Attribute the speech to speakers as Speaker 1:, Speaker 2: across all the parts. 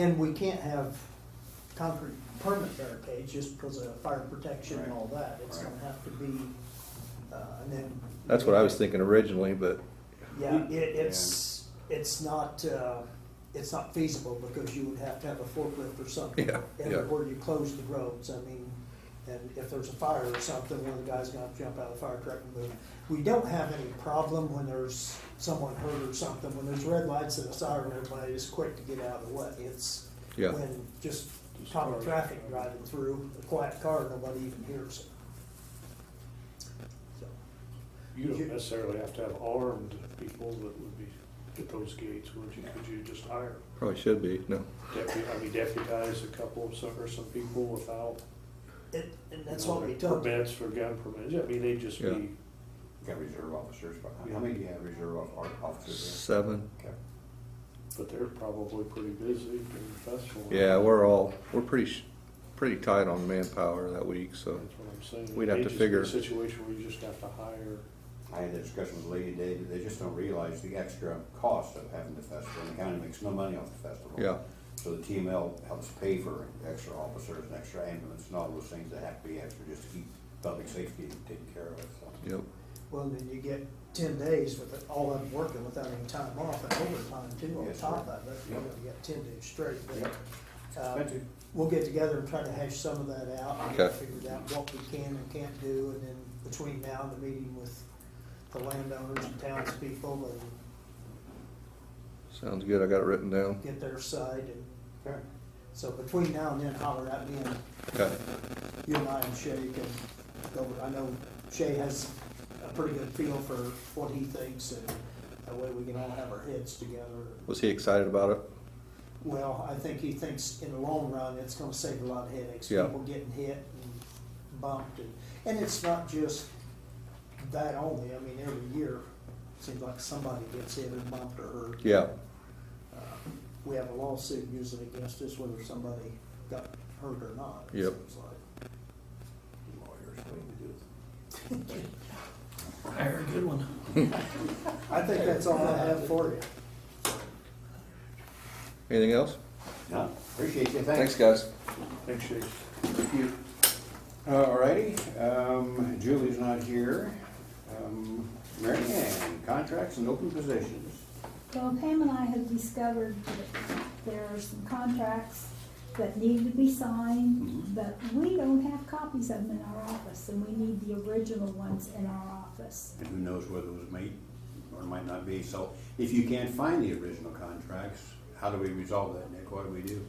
Speaker 1: And we can't have concrete permanent barricades just because of fire protection and all that. It's gonna have to be, uh, and then.
Speaker 2: That's what I was thinking originally, but
Speaker 1: Yeah, it, it's, it's not, uh, it's not feasible because you would have to have a forklift or something.
Speaker 2: Yeah,
Speaker 1: And
Speaker 2: yeah.
Speaker 1: where you close the roads, I mean, and if there's a fire or something, one of the guys gonna have to jump out of the fire truck and move. We don't have any problem when there's someone hurt or something, when there's red lights and a siren, everybody is quick to get out of the way. It's
Speaker 2: Yeah.
Speaker 1: when just common traffic driving through, a quiet car, nobody even hears it. So.
Speaker 3: You
Speaker 1: You-
Speaker 3: don't necessarily have to have armed people that would be at those gates, would you? Could you just hire
Speaker 2: probably should be, no.
Speaker 3: deputy, I mean deputize a couple of some, or some people without?
Speaker 1: It, and that's
Speaker 3: you know,
Speaker 1: what we
Speaker 3: their
Speaker 1: took.
Speaker 3: Permits for gun permits, I mean, they would just
Speaker 2: Yeah.
Speaker 3: be,
Speaker 4: Got reserve officers, but how- how many do you have reserve of- of- officers?
Speaker 2: Seven,
Speaker 4: there? Okay.
Speaker 3: but they're probably pretty busy during the festival.
Speaker 2: yeah, we're all, we're pretty, sh- pretty tight on manpower that week,
Speaker 3: That's
Speaker 2: so.
Speaker 3: what I'm saying.
Speaker 2: We'd have
Speaker 3: It
Speaker 2: to
Speaker 3: just be
Speaker 2: figure-
Speaker 3: a Situation where you just have to hire,
Speaker 4: I had a discussion with Lady David, they just don't realize the extra cost of having the festival, and the county makes no money off the festival.
Speaker 2: Yeah.
Speaker 4: So the TML helps pay for extra officers and extra ambulance and all those things that have to be extra just to keep public safety taken care of, so.
Speaker 2: Yep,
Speaker 1: Well, then you get ten days with all of them working without any time off and overtime too on
Speaker 4: Yes, sir.
Speaker 1: top of it. You know,
Speaker 4: Yep.
Speaker 1: you got ten days straight. but,
Speaker 4: Yep.
Speaker 1: uh,
Speaker 4: Expensive.
Speaker 1: We'll get together and try to hash some of that out. and
Speaker 2: Okay.
Speaker 1: Figure out what we can and can't do, and then between now and the meeting with the landowners and townspeople and
Speaker 2: sounds good, I got it written down.
Speaker 1: get their side. And
Speaker 4: Okay.
Speaker 1: so between now and then, holler at me and
Speaker 2: Okay,
Speaker 1: you and I and Shay can go, I know Shay has a pretty good feel for what he thinks and that way we can all have our heads together.
Speaker 2: was he excited about it?
Speaker 1: Well, I think he thinks in the long run, it's gonna save a lot of headaches,
Speaker 2: Yeah.
Speaker 1: people getting hit and bumped and, and it's not just that only, I mean, every year, seems like somebody gets hit or bumped or hurt.
Speaker 2: Yeah,
Speaker 1: Uh, We have a lawsuit usually against us whether somebody got hurt or not. it
Speaker 2: Yep.
Speaker 1: seems like.
Speaker 4: Lawyers, what do you do?
Speaker 5: Hire a good one.
Speaker 1: I think that's all I have for you.
Speaker 2: anything else?
Speaker 4: No, appreciate you,
Speaker 2: Thanks, guys.
Speaker 3: make sure you
Speaker 4: Uh, Alrighty, um, Julie's not here. Um, Mary Ann, contracts and open positions.
Speaker 6: Well, Pam and I have discovered that there are some contracts that need to be
Speaker 4: Mm-hmm.
Speaker 6: signed, but we don't have copies of them in our office, and we need the original ones in our office.
Speaker 4: And who knows whether it was made or might not be. So if you can't find the original contracts, how do we resolve that, Nick? What do we do?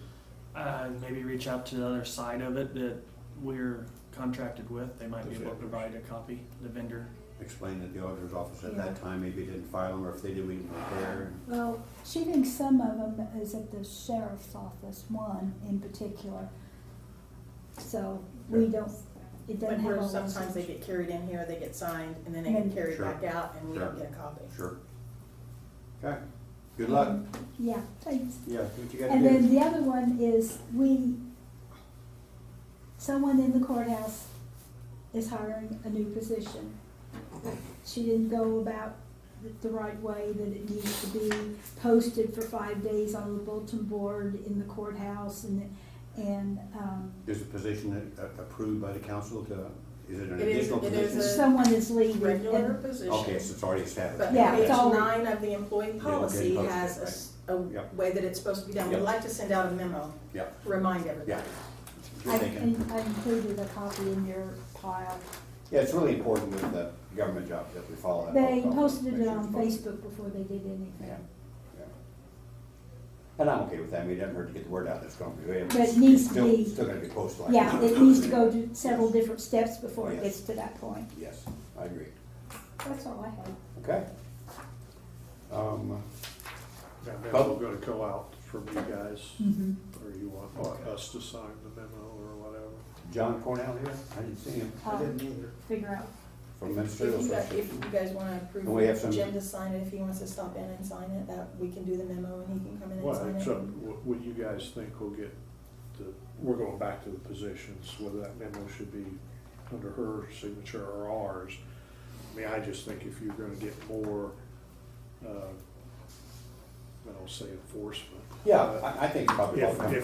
Speaker 5: Uh, maybe reach out to the other side of it that we're contracted with. They might be able to provide a copy, the vendor.
Speaker 4: Explain that the auditor's office at that time maybe didn't file them, or if they did, we didn't prepare.
Speaker 6: Well, she thinks some of them is at the sheriff's office, one in particular. So we don't, it doesn't
Speaker 7: But
Speaker 6: have
Speaker 7: where
Speaker 6: all those.
Speaker 7: sometimes they get carried in here, they get signed, and then they get
Speaker 6: And-
Speaker 7: carried
Speaker 4: Sure.
Speaker 7: back out, and we don't
Speaker 4: Sure.
Speaker 7: get a copy.
Speaker 4: Sure. Okay, good luck.
Speaker 6: Yeah, thanks.
Speaker 4: Yeah, what you gotta
Speaker 6: Mm-hmm. And then
Speaker 4: do.
Speaker 6: the other one is we, someone in the courthouse is hiring a new position. She didn't go about it the right way that it needs to be posted for five days on the bulletin board in the courthouse and, and, um,
Speaker 4: Is a position that uh, approved by the council to, is it an
Speaker 7: It is-
Speaker 4: additional
Speaker 7: it is
Speaker 4: position?
Speaker 7: a-
Speaker 6: someone is leaving. and-
Speaker 7: Regular position.
Speaker 4: Okay, so it's already
Speaker 7: But
Speaker 4: established.
Speaker 6: Yeah,
Speaker 7: page
Speaker 6: it's all-
Speaker 7: nine of the employee
Speaker 4: get
Speaker 7: policy
Speaker 4: posted,
Speaker 7: has a s- a
Speaker 4: Yep.
Speaker 7: way that it's supposed to be done. We'd
Speaker 4: Yep.
Speaker 7: like to send out a memo,
Speaker 4: Yeah,
Speaker 7: remind everybody.
Speaker 4: yeah. Good
Speaker 6: I,
Speaker 4: thinking.
Speaker 6: I included a copy in your pile.
Speaker 4: Yeah, it's really important with the government jobs that we follow that.
Speaker 6: They
Speaker 4: protocol,
Speaker 6: posted
Speaker 4: make
Speaker 6: it
Speaker 4: sure it's
Speaker 6: on
Speaker 4: posted.
Speaker 6: Facebook before they did
Speaker 4: Yeah,
Speaker 6: anything.
Speaker 4: yeah. And I'm okay with that, I mean, it doesn't hurt to get the word out, it's gonna be.
Speaker 6: But it needs to
Speaker 4: still-
Speaker 6: be-
Speaker 4: Still gonna be posted. like
Speaker 6: Yeah,
Speaker 4: that.
Speaker 6: it needs to go to several different steps before
Speaker 4: Yes.
Speaker 6: it gets to that point.
Speaker 4: Yes, I agree,
Speaker 6: That's all I have.
Speaker 4: okay. Um,
Speaker 3: That memo gonna go out from you guys, or you want us to sign the memo or whatever?
Speaker 4: John Cornell here, I didn't see him,
Speaker 1: I
Speaker 6: Um,
Speaker 1: didn't either.
Speaker 6: Figure out.
Speaker 4: from
Speaker 7: If you
Speaker 4: Minnesota.
Speaker 7: guys,
Speaker 4: Association.
Speaker 7: if you guys wanna approve
Speaker 4: And we have
Speaker 7: the
Speaker 4: some-
Speaker 7: agenda, sign it, if he wants to stop in and sign it, that, we can do the memo and he can come in and
Speaker 3: Well,
Speaker 7: sign it.
Speaker 3: except wh- what you guys think will get, the- we're going back to the positions, whether that memo should be under her signature or ours. I mean, I just think if you're gonna get more, uh,
Speaker 4: I don't say enforcement.
Speaker 3: Yeah,
Speaker 4: but-
Speaker 3: I, I think probably.
Speaker 4: If- if